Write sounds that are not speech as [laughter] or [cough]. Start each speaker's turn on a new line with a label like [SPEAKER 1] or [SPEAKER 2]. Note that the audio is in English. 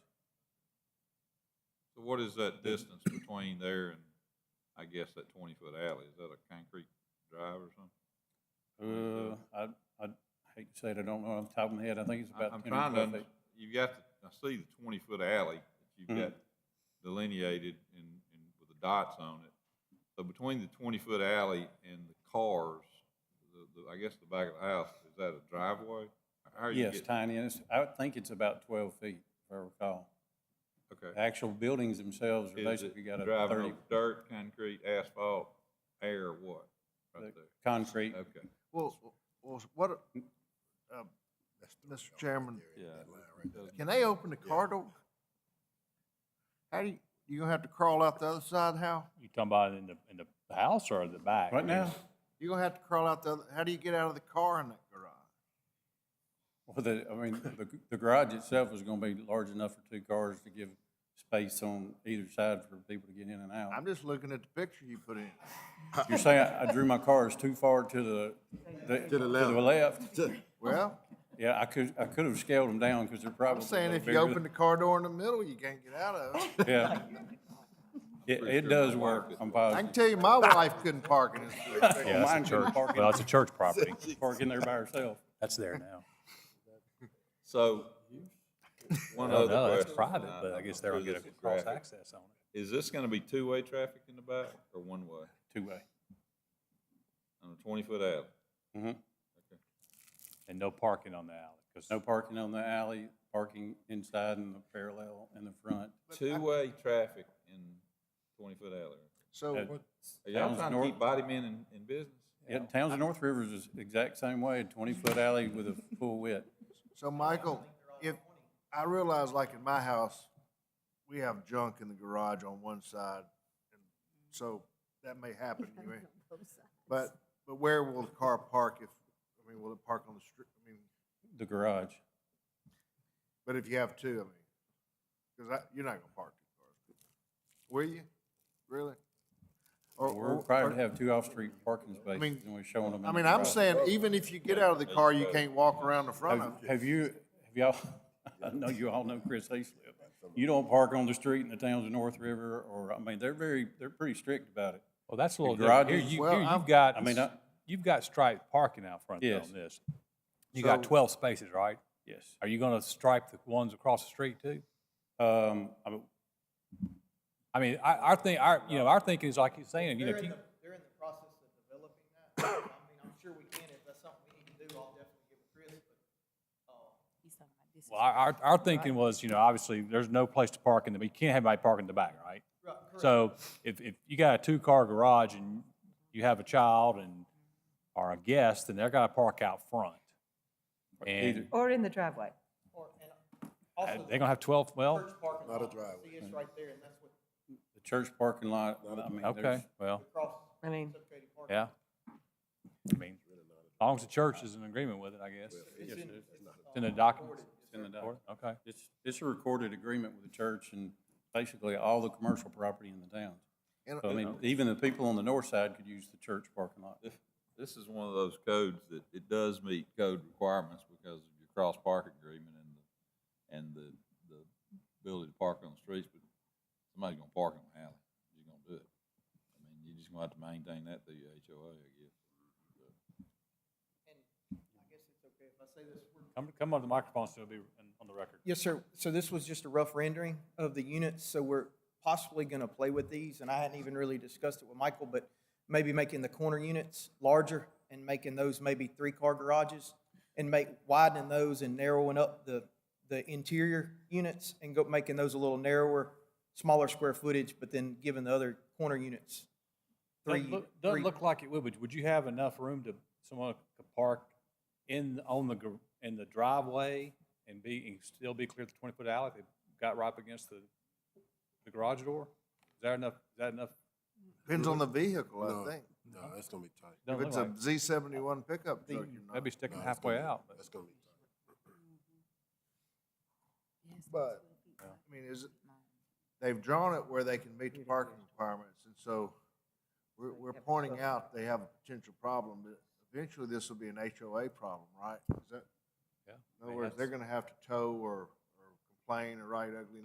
[SPEAKER 1] So what is that distance between there and, I guess, that twenty-foot alley? Is that a concrete drive or something?
[SPEAKER 2] Uh, I, I hate to say it, I don't know off the top of my head, I think it's
[SPEAKER 1] I-
[SPEAKER 2] about
[SPEAKER 1] I'm
[SPEAKER 2] ten or
[SPEAKER 1] trying to,
[SPEAKER 2] twelve
[SPEAKER 1] under-
[SPEAKER 2] feet.
[SPEAKER 1] you've got, to- I see the twenty-foot alley that you've
[SPEAKER 2] Mhm.
[SPEAKER 1] got delineated and, and with the dots on it. So between the twenty-foot alley and the cars, the, the, I guess the back of the house, is that a driveway? How are you
[SPEAKER 2] Yes,
[SPEAKER 1] getting-
[SPEAKER 2] tiny, and it's, I would think it's about twelve feet, if I recall. The
[SPEAKER 1] Okay.
[SPEAKER 2] Actual buildings themselves are
[SPEAKER 1] Is
[SPEAKER 2] basically
[SPEAKER 1] it
[SPEAKER 2] got a
[SPEAKER 1] driving
[SPEAKER 2] thirty
[SPEAKER 1] over dirt, concrete, asphalt, air, or what? Right there.
[SPEAKER 2] concrete.
[SPEAKER 1] Okay.
[SPEAKER 3] Well, well, what, uh, Mr. Chairman, can they open the car door? How do you, you gonna have to crawl out the other side, How
[SPEAKER 4] You talking about in the, in the house or the back?
[SPEAKER 2] Right now,
[SPEAKER 3] You gonna have to crawl out the, other? how do you get out of the car in that garage?
[SPEAKER 2] [laughs] well, the, I mean, the, the garage itself is gonna be large enough for two cars to give space on either side for people to get in and out.
[SPEAKER 3] I'm just looking at the picture you put in.
[SPEAKER 2] You're saying I drew my cars too far to
[SPEAKER 3] [laughs]
[SPEAKER 2] the, the, to the left?
[SPEAKER 3] Well,
[SPEAKER 2] Yeah, I could, I could have scaled them down, because they're
[SPEAKER 3] I'm
[SPEAKER 2] probably.
[SPEAKER 3] saying
[SPEAKER 2] no
[SPEAKER 3] if you
[SPEAKER 2] bigger
[SPEAKER 3] open
[SPEAKER 2] than-
[SPEAKER 3] the car door in the middle, you can't get out of it. [laughs]
[SPEAKER 2] Yeah. It,
[SPEAKER 1] pretty
[SPEAKER 2] it
[SPEAKER 1] sure my
[SPEAKER 2] does
[SPEAKER 1] wife
[SPEAKER 2] work,
[SPEAKER 1] is
[SPEAKER 2] I'm
[SPEAKER 3] I
[SPEAKER 2] positive.
[SPEAKER 3] can tell you, my wife couldn't park in this. thing.
[SPEAKER 4] Yeah,
[SPEAKER 2] Mine
[SPEAKER 4] it's a
[SPEAKER 2] couldn't
[SPEAKER 4] church,
[SPEAKER 2] park in-
[SPEAKER 4] well, it's a [laughs] church property.
[SPEAKER 2] Parking there by herself.
[SPEAKER 4] That's there now.
[SPEAKER 1] So,
[SPEAKER 4] I
[SPEAKER 1] one
[SPEAKER 4] don't
[SPEAKER 1] other
[SPEAKER 4] know,
[SPEAKER 1] question.
[SPEAKER 4] Oh, that's private,
[SPEAKER 1] and
[SPEAKER 4] but I
[SPEAKER 1] I'm
[SPEAKER 4] guess
[SPEAKER 1] not
[SPEAKER 4] they're
[SPEAKER 1] sure
[SPEAKER 4] gonna get
[SPEAKER 1] this
[SPEAKER 4] a
[SPEAKER 1] is
[SPEAKER 4] cross
[SPEAKER 1] graphic.
[SPEAKER 4] access on it.
[SPEAKER 1] Is this gonna be two-way traffic in the back or one-way
[SPEAKER 2] two-way.
[SPEAKER 1] on a twenty-foot alley?
[SPEAKER 4] Mm-hmm. And no parking on the alley, because
[SPEAKER 2] No parking on the alley, parking inside and the parallel in the front.
[SPEAKER 1] Two-way traffic in twenty-foot alley.
[SPEAKER 2] Uh,
[SPEAKER 3] So,
[SPEAKER 1] Are y'all
[SPEAKER 2] Sounds
[SPEAKER 1] trying to
[SPEAKER 2] nor-
[SPEAKER 1] keep body men in, in business?
[SPEAKER 2] Yeah, Towns of North Rivers is exact same way, twenty-foot alley with a full width.
[SPEAKER 3] so Michael, if, I realize like in my house, we have junk in the garage on one side. and So that may happen, you may- but, but where will the car park if, I mean, will it park on the street? I mean,
[SPEAKER 2] The garage,
[SPEAKER 3] but if you have two, I mean, because I, you're not gonna park two cars. Will you? Really? Or-
[SPEAKER 2] we're
[SPEAKER 3] or-
[SPEAKER 2] required to
[SPEAKER 3] or-
[SPEAKER 2] have two off-street parking
[SPEAKER 3] mean-
[SPEAKER 2] spaces, and we're showing them.
[SPEAKER 3] I mean, I'm saying even if you get out of the car, you can't walk around the front of
[SPEAKER 2] Have
[SPEAKER 3] it.
[SPEAKER 2] have you, have y'all, [laughs] I know you all know Chris Hayslip. You don't park on the street in the Towns of North River, or, I mean, they're very, they're pretty strict about it.
[SPEAKER 4] Well, that's a little
[SPEAKER 2] The
[SPEAKER 4] different. Here,
[SPEAKER 2] garages-
[SPEAKER 4] you,
[SPEAKER 3] Well,
[SPEAKER 4] here
[SPEAKER 3] I'm-
[SPEAKER 4] you've got,
[SPEAKER 2] I mean, I-
[SPEAKER 4] you've got striped parking out front there
[SPEAKER 2] Yes.
[SPEAKER 4] on this. You got
[SPEAKER 3] So-
[SPEAKER 4] twelve spaces, right?
[SPEAKER 2] Yes.
[SPEAKER 4] Are you gonna stripe the ones across the street too?
[SPEAKER 2] Um, I mean,
[SPEAKER 4] I mean, I, our thing, our, you know, our thinking is like you're saying, you know,
[SPEAKER 5] They're
[SPEAKER 4] if
[SPEAKER 5] in
[SPEAKER 4] you,
[SPEAKER 5] the, they're in the process of developing that. [coughs] I mean, I'm sure we can, if that's something we need to do, I'll definitely give it to Chris, but, uh,
[SPEAKER 4] well, our, our, our thinking was, you know, obviously, there's no place to park in the, you can't have anybody park in the back, right?
[SPEAKER 5] uh, right, correct.
[SPEAKER 4] So if, if you got a two-car garage and you have a child and, or a guest, then they're gotta park out front.
[SPEAKER 2] either,
[SPEAKER 4] And
[SPEAKER 6] Or in the driveway.
[SPEAKER 5] Or- and
[SPEAKER 4] uh,
[SPEAKER 5] Also,
[SPEAKER 4] they're
[SPEAKER 5] the
[SPEAKER 4] gonna have twelve, well,
[SPEAKER 5] church parking
[SPEAKER 7] Not a
[SPEAKER 5] lot,
[SPEAKER 7] driveway.
[SPEAKER 5] see, it's right there, and that's what
[SPEAKER 2] the church parking lot, I mean, there's,
[SPEAKER 4] okay, well,
[SPEAKER 5] the cross
[SPEAKER 6] I mean,
[SPEAKER 5] substituted parking.
[SPEAKER 4] yeah. I mean, as long as the church is in agreement with it, I guess.
[SPEAKER 5] It's uh, in,
[SPEAKER 4] It's in the documents.
[SPEAKER 2] in the doc.
[SPEAKER 4] Okay.
[SPEAKER 2] It's, it's a recorded agreement with the church and basically all the commercial property in the town.
[SPEAKER 3] And-
[SPEAKER 2] So I mean, even the people on the north side could use the church parking lot.
[SPEAKER 1] This, this is one of those codes that it does meet code requirements because of your cross-park agreement and the, and the, the ability to park on the streets, but somebody's gonna park in the alley. You're gonna do it. I mean, you're just gonna have to maintain that through your HOA, I guess.
[SPEAKER 5] and I guess it's okay if I say this, we're
[SPEAKER 4] Come, come on the microphone, so it'll be in- on the record.
[SPEAKER 5] Yes, sir. So this was just a rough rendering of the units, so we're possibly gonna play with these, and I hadn't even really discussed it with Michael, but maybe making the corner units larger and making those maybe three-car garages and make, widening those and narrowing up the, the interior units and go, making those a little narrower, smaller square footage, but then giving the other corner units three.
[SPEAKER 4] Doesn't look- Doesn't
[SPEAKER 5] three-
[SPEAKER 4] look like it would, but would you have enough room to, someone could park in, on the, gar- in the driveway and be, and still be clear of the twenty-foot alley if they got right up against the, the garage door? Is that enough, is that enough?
[SPEAKER 3] Depends on the vehicle,
[SPEAKER 7] No.
[SPEAKER 3] I think.
[SPEAKER 7] No, that's gonna be tight.
[SPEAKER 4] Doesn't
[SPEAKER 3] If
[SPEAKER 4] look
[SPEAKER 3] it's a Z
[SPEAKER 4] like-
[SPEAKER 3] seventy-one pickup truck,
[SPEAKER 5] The-
[SPEAKER 3] you're not.
[SPEAKER 4] That'd be sticking
[SPEAKER 7] No, that's
[SPEAKER 4] halfway
[SPEAKER 7] gonna be-
[SPEAKER 4] out, but
[SPEAKER 7] That's gonna be tight.
[SPEAKER 3] But, I mean, is it, they've drawn it where they can meet the parking requirements, and so we're, we're pointing out they have a potential problem, but eventually this will be an HOA problem, right? Is that,
[SPEAKER 4] Yeah,
[SPEAKER 3] in
[SPEAKER 4] I
[SPEAKER 3] other
[SPEAKER 4] mean,
[SPEAKER 3] words, they're
[SPEAKER 4] that's-
[SPEAKER 3] gonna have to tow or, or complain or write ugly